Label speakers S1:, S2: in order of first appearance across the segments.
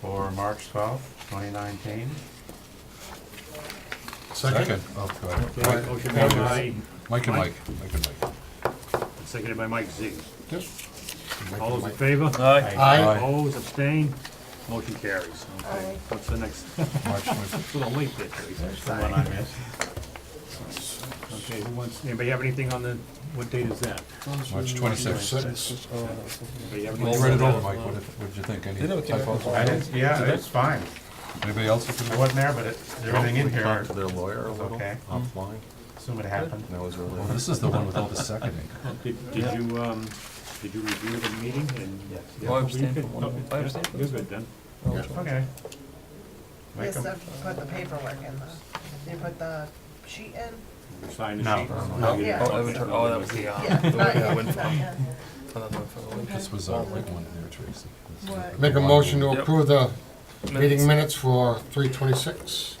S1: for March twelfth, twenty nineteen.
S2: Second.
S3: Oh, go ahead.
S2: Mike-
S4: Motion made by,
S3: Mike and Mike,
S4: Mike?
S3: Mike and Mike.
S4: seconded by Mike Z.
S3: Yes. Mike
S4: All
S3: and
S4: those in
S3: Mike.
S4: favor?
S1: Aye.
S2: Aye.
S4: Opposed, abstained, motion carries. Okay, what's the next?
S3: March 20.
S4: It's a little late there, Tracy.
S1: The one I missed.
S4: Okay, who wants, anybody have anything on the, what date is that?
S3: March twenty-sixth.
S4: Anybody have
S3: You
S4: anything?
S3: read it over, Mike, what did, what did you think, any
S2: They never came back
S3: typos?
S2: with-
S1: I didn't, yeah, it's fine.
S3: Anybody else? that
S1: I
S3: can-
S1: wasn't there, but it, everything in here,
S5: Talk to their lawyer a little
S1: Okay.
S5: offline.
S1: assume it happened.
S5: That was
S3: Well,
S5: really.
S3: this is the one with all the seconding.
S4: Did did you, um, did you review the meeting and?
S6: Oh, I abstained
S4: Were you
S6: from
S4: good?
S6: one of them.
S4: No,
S6: I abstained from
S4: You're good then.
S1: Okay. Make
S7: Yes, I
S1: 'em-
S7: put the paperwork in the, you put the sheet in?
S4: You signed the
S1: No.
S4: sheet?
S1: No.
S4: You didn't.
S7: Oh,
S6: Avatar- oh, that was the,
S7: Yeah, not yet, not yet.
S3: This was our big one there, Tracy. This is
S7: What?
S3: the
S2: Make a
S3: one
S2: motion
S3: we-
S2: to
S6: Yep.
S2: approve the meeting
S6: Minutes.
S2: minutes for three twenty-six.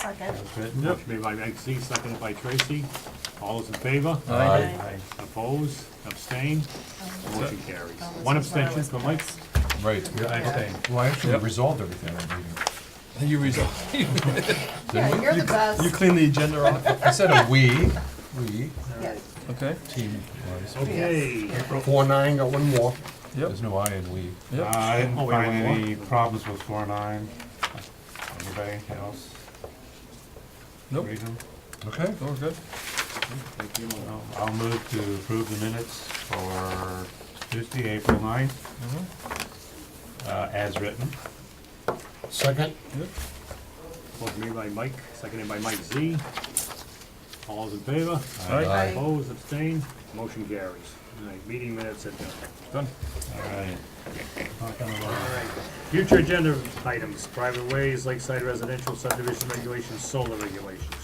S7: Second.
S1: Good.
S4: Motion made by Mike Z, seconded by Tracy. All those in favor?
S6: Aye.
S1: Aye.
S4: Opposed, abstained, motion carries.
S7: Oh,
S4: One
S7: this is where I
S4: abstention
S7: was
S4: for Mike.
S7: passed.
S3: Right.
S1: I abstained.
S3: Well, I actually
S6: Yep.
S3: resolved everything on the meeting.
S6: You resolve.
S7: Yeah, you're the
S6: You
S7: best.
S6: clean the agenda off.
S3: I said a we, we,
S7: Yes.
S6: Okay.
S3: team wise.
S4: Okay.
S2: Four nine, got one more.
S3: There's no I in we.
S1: Uh,
S6: Yep.
S7: Ah.
S1: I didn't
S4: Oh, wait,
S1: find
S4: one more?
S1: any problems with four nine. Anybody else?
S6: Nope.
S1: Read 'em?
S3: Okay.
S6: Oh, we're good.
S1: I'll- I'll move to approve the minutes for Tuesday, April ninth,
S4: Mm-hmm.
S1: uh, as written.
S2: Second.
S4: Motion made by Mike, seconded by Mike Z. All those in favor?
S6: Aye.
S7: Aye.
S4: Opposed, abstained, motion carries. All right, meeting minutes are done. Done.
S1: All right.
S4: Future agenda items, private ways, lakeside residential subdivision regulations, solar regulations.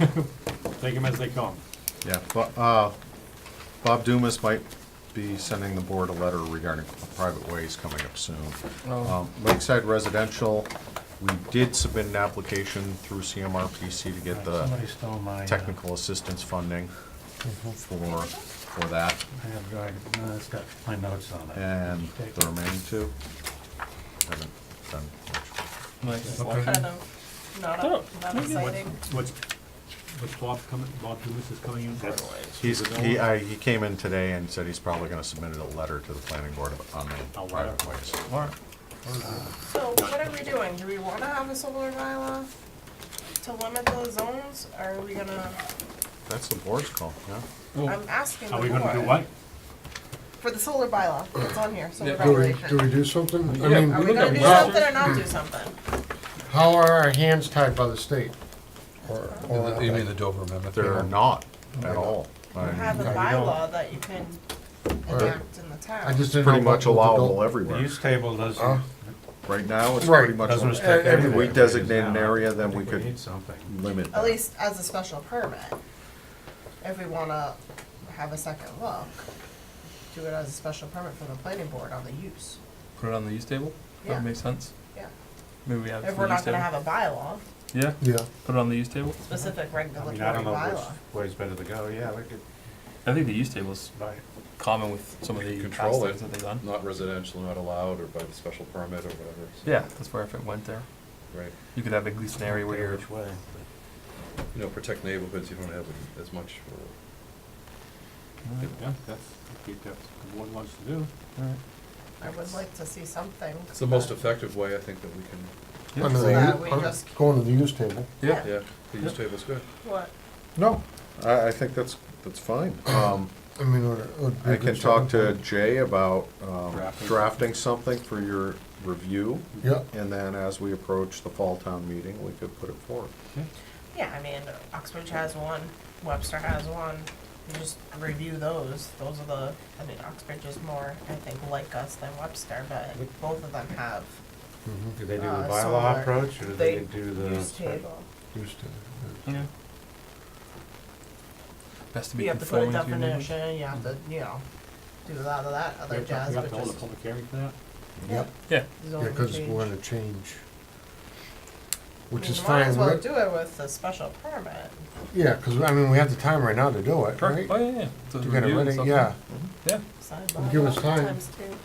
S4: Take them as they come.
S5: Yeah, but, uh, Bob Dumas might be sending the board a letter regarding private ways coming up soon. Um, Lakeside Residential, we did submit an application through CMRPC to get the
S1: Somebody stole my. uh,
S5: technical assistance funding for, for that,
S1: I have, uh, no, it's got my notes on it.
S5: and the remaining two. haven't done much.
S6: Nice.
S7: Kind of, not, not exciting.
S4: What's, what's Bob coming, Bob Dumas is coming in?
S5: He's, he, I, he came in today and said he's probably gonna submit a letter to the planning board on
S4: A
S5: the
S4: letter?
S5: private ways.
S6: All right.
S7: So what are we doing? Do we wanna have a solar bylaw to limit those zones, or are we gonna,
S5: That's the board's call, yeah.
S7: I'm asking the
S4: Are we gonna do
S7: board.
S4: what?
S7: For the solar bylaw, it's on here, solar
S6: Yeah.
S2: Do we,
S7: regulation.
S2: do we do something? I
S6: Yeah.
S2: mean,
S7: Are we gonna do
S2: how,
S7: something or not do something?
S2: how are our hands tied by the state? Or, or,
S3: Oh, You mean the Dover Amendment?
S5: They're not at all.
S7: You have a bylaw that you can enact in the town.
S2: I just didn't know.
S5: Pretty much
S2: what- what to
S5: allowable
S2: do.
S1: The
S5: everywhere.
S1: use table
S2: Huh?
S5: Oh,
S1: doesn't,
S5: Right now, it's
S2: Right.
S5: pretty much,
S1: doesn't
S5: if
S1: restrict anything.
S5: we designate an
S1: Now,
S5: area, then
S1: I
S5: we
S1: think
S5: could
S1: Need something.
S5: limit
S7: At
S5: that.
S7: least as a special permit, if we wanna have a second look, do it as a special permit from the planning board on the use.
S6: Put it on the use table.
S7: Yeah.
S6: That makes sense.
S7: Yeah.
S6: Maybe we have it
S7: If
S6: for
S7: we're
S6: the use
S7: not gonna
S6: table.
S7: have a bylaw,
S6: Yeah.
S2: Yeah.
S6: Put it on the use table.
S7: specific
S1: Uh-huh. I
S7: regulatory
S1: mean, I don't know
S7: bylaw.
S1: which way's better to go, yeah, we could,
S6: I think the use table's
S1: right.
S6: common with some of the past
S8: Control it.
S6: things that they've done.
S8: Not residential, not allowed, or by the special permit or whatever. so,
S6: Yeah, that's where if it went there,
S8: Right,
S6: you could have at least an area where you're
S1: Which way?
S8: you know, protect neighborhoods, you don't have as much, or
S4: Yeah, that's, I think that's what the board wants to do.
S7: I would like to see something.
S8: it's the most effective way, I think, that we can,
S2: Under the
S7: So that
S2: u-
S7: we
S2: un-
S7: just-
S2: Going to the use table.
S6: Yeah.
S8: yeah, the use table's good.
S7: What?
S5: No, I, I think that's, that's fine. Um,
S2: I mean, it would- it would be
S5: I
S2: a
S5: can
S2: good
S5: talk to
S2: starting
S5: Jay about um,
S4: Drafting.
S5: drafting something for your review,
S2: point. Yeah.
S5: and then as we approach the fall town meeting, we could put it forward.
S7: Yeah, I mean, Oxbridge has one, Webster has one, you just review those, those are the, I mean, Oxbridge is more, I think, like us than Webster, but both of them have
S5: Mm-hmm.
S1: Do they do the
S7: Uh,
S1: bylaw
S7: solar.
S1: approach, or do they
S7: They
S1: do the?
S7: use
S1: spe-
S7: table.
S2: Use table.
S6: Yeah. Best to be
S7: You have to put a
S6: conforming to your neighborhood.
S7: definition, you have to, you know, do a lot of that
S4: We
S7: other
S4: have to-
S7: jazz,
S4: we have to
S7: which
S4: hold a
S7: is.
S4: public hearing for that?
S2: Yep.
S6: Yeah.
S2: Yeah,
S7: zoning
S2: because
S7: change.
S2: we're gonna change,
S7: I
S2: which
S7: mean,
S2: is
S7: Might
S2: fine.
S7: as well
S2: right?
S7: do it with the special permit.
S2: Yeah, because, I mean, we have the time right now to do it, right?
S6: Correct. Oh, yeah, yeah. To
S2: To get it
S6: review and
S2: ready,
S6: stuff.
S2: yeah.
S6: Yeah.
S7: Sidebar
S2: Give us
S7: multiple
S2: time.
S7: times too.